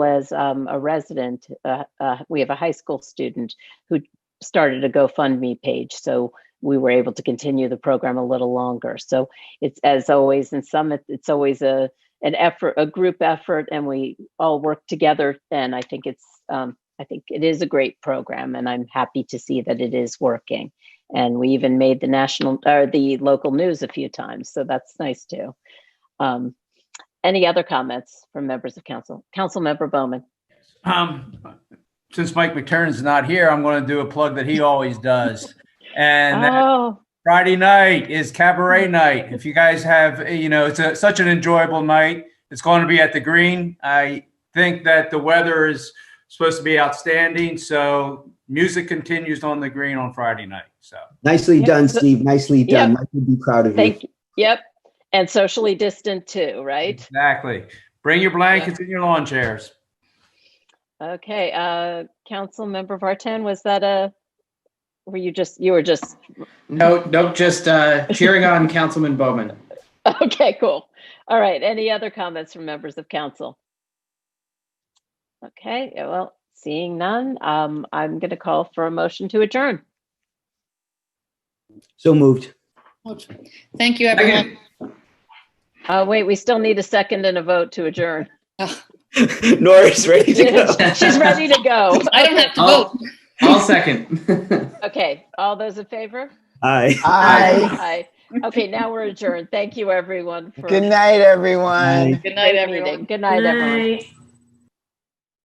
as um, a resident, uh, uh, we have a high school student who started a GoFundMe page. So we were able to continue the program a little longer. So it's as always in Summit, it's always a an effort, a group effort, and we all work together. And I think it's um, I think it is a great program, and I'm happy to see that it is working. And we even made the national or the local news a few times, so that's nice too. Um, any other comments from members of council? Council member Bowman. Um, since Mike McTernan's not here, I'm going to do a plug that he always does. And that oh, Friday night is cabaret night. If you guys have, you know, it's a, such an enjoyable night. It's going to be at the green. I think that the weather is supposed to be outstanding. So music continues on the green on Friday night. So Nicely Yeah. done, Steve. Nicely done. Yeah. I would be proud of you. thank you. Yep. And socially distant too, right? exactly. Bring your blankets and your lawn chairs. Okay, uh, Council Member Vartan, was that a, were you just, you were just, No, nope, just uh, cheering on Councilman Bowman. okay, cool. All right, any other comments from members of council? Okay, yeah, well, seeing none, um, I'm gonna call for a motion to adjourn. So moved. Thank you, everyone. Second. Uh, wait, we still need a second and a vote to adjourn. Nora's ready to go. She's ready to go. I don't have to I'll, vote. I'll second. Okay, all those in favor? Aye. Aye. Aye. Okay, now we're adjourned. Thank you, everyone. for Good night, everyone. Aye. Good great night, everyone. meeting. Good night, everyone. Night.